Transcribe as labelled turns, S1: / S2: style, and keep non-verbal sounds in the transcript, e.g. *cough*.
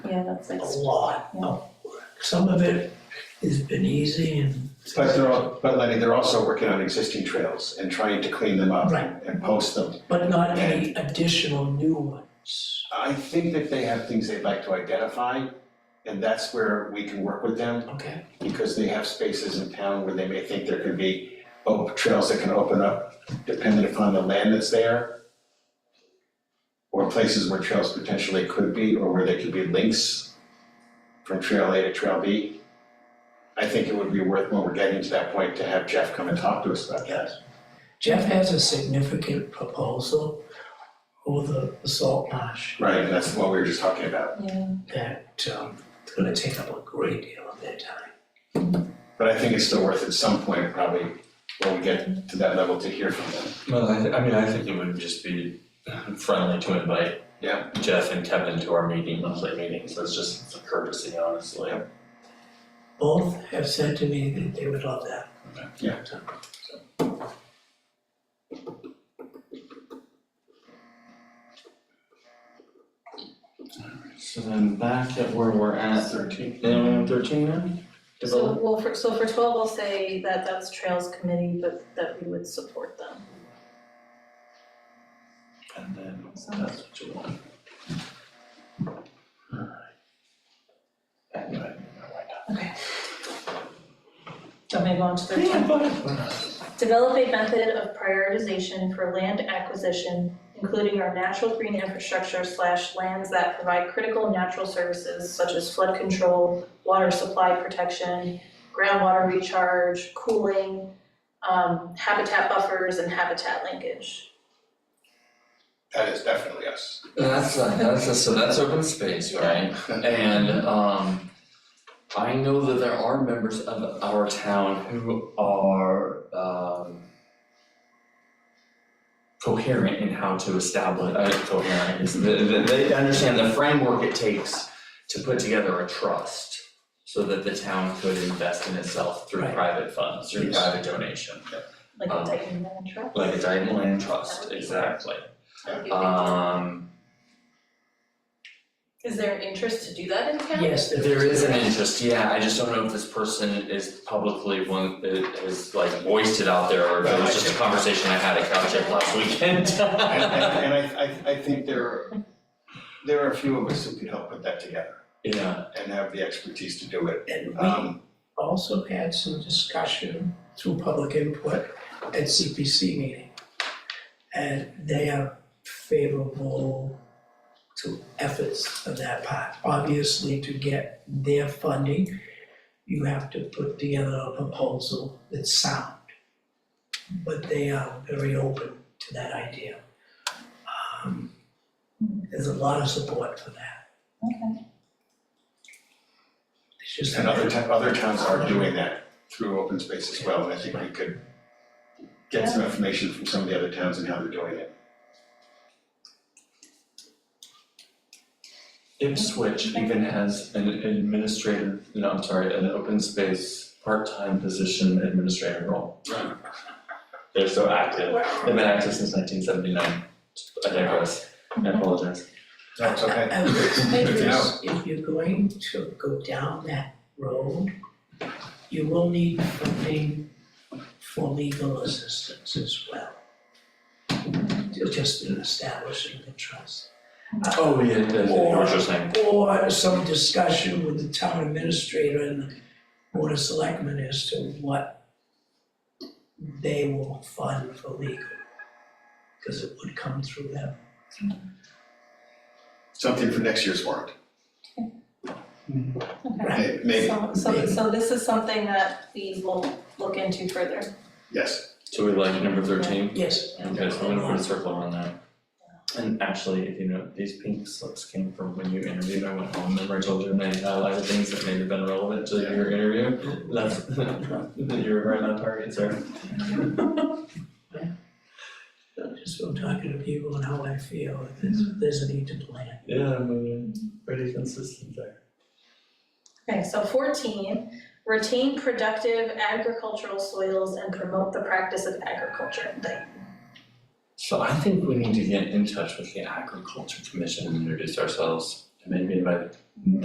S1: It's like
S2: a lot
S1: yeah.
S2: of work. Some of it has been easy and.
S3: But they're, al- but I mean, they're also working on existing trails and trying to clean them up
S2: Right.
S3: and post them.
S2: But not any additional new ones.
S3: I think that they have things they'd like to identify, and that's where we can work with them,
S2: Okay,
S3: because they have spaces in town where they may think there could be oh, trails that can open up dependent upon the land that's there. Or places where trails potentially could be, or where there could be links from trail A to trail B. I think it would be worth, when we're getting to that point, to have Jeff come and talk to us about that.
S2: Jeff has a significant proposal for the the salt marsh
S3: Right, and that's what we were just talking about.
S1: Yeah,
S2: that, um, it's gonna take up a great deal of their time.
S3: But I think it's still worth at some point, probably, when we get to that level, to hear from them.
S4: Well, I, th- I mean, I think it would just be friendly to invite
S3: Yeah.
S4: Jeff and Kevin to our meeting, monthly meetings, that's just a courtesy, honestly.
S2: Both have said to me that they would love that.
S3: Yeah.
S2: So-
S4: So then back at where we're at,
S3: Thirteen.
S4: anyone on thirteen now?
S5: Oh.
S1: so, well, for, so for twelve, I'll say that that's Trails Committee, but that we would support them.
S4: And then that's what you want. Alright. Anyway,
S1: Don't move on to
S4: never
S1: thirteen.
S4: mind.
S1: Develop a method of prioritization for land acquisition, including our natural green infrastructure slash lands that provide critical natural services such as flood control, water supply protection, groundwater recharge, cooling, um, habitat buffers, and habitat linkage.
S3: That is definitely us.
S5: That's, uh, that's, uh, so that's open space, right? And, um, I know that there are members of our town who are, um, coherent in how to establish, uh, coherent, is, they, they- they understand the framework it takes to put together a trust so that the town could invest in itself through
S2: Right.
S5: private funds, through
S3: Yes.
S5: private donation,
S1: Like
S5: Um,
S1: the Dyton Land Trust,
S5: like a Dyton Land Trust, exactly.
S1: that would be a big deal.
S5: Um,
S1: Is there an interest to do that in town?
S2: Yes,
S5: There is an interest, yeah, I just don't know if this person is publicly one, is like voiced it out there, or if it was just a conversation I had at Caltech last weekend.
S3: And, and- and I, I, I think there, are- there are a few of us who could help put that together
S5: Yeah,
S3: and have the expertise to do it.
S2: And we
S3: Um,
S2: also had some discussion through public input at CPC meeting. And they are favorable to efforts of that part. Obviously, to get their funding, you have to put together a proposal that's sound. But they are very open to that idea. Um, There's a lot of support for that.
S1: Okay.
S2: It's just.
S3: and other ta- other towns are doing that through open space as well, and I think we could get some information from some of the other towns and how they're doing it.
S5: Ipswich even has an administrative, no, I'm sorry, an open space, part-time position administrator role.
S3: Right.
S5: They're so active, they've been active since nineteen seventy-nine, I digress, I apologize.
S3: That's
S2: I- *laughs*
S3: okay.
S2: I would
S3: Good to know.
S2: suggest Oh, if you're going to go down that road, you will need funding for legal assistance as well. Ju- Just in establishing the trust.
S5: Oh, yeah, yeah, yeah, you were just saying,
S2: Or some discussion with the town administrator and the board of selectmen as to what they will fund for legal. Because it would come through them.
S3: Something for next year's warrant,
S1: Okay.
S3: May- maybe,
S1: So, so, so this is something that we will look into further.
S3: yes.
S5: so we like number thirteen?
S2: Yes.
S5: Okay, so I'm gonna put a circle around that. And actually, if you know, these pink slips came from when you interviewed, I went home, remember I told you, and I highlighted things that may have been relevant to your interview? *laughs* That's, you were right on target, sir.
S2: I'm just from talking to people and how I feel, if there's, there's a need to plan.
S5: Yeah, I mean, pretty consistent there.
S1: Okay, so fourteen, retain productive agricultural soils and promote the practice of agriculture. Like,
S5: So I think we need to get in touch with the agriculture commission and introduce ourselves, and maybe invite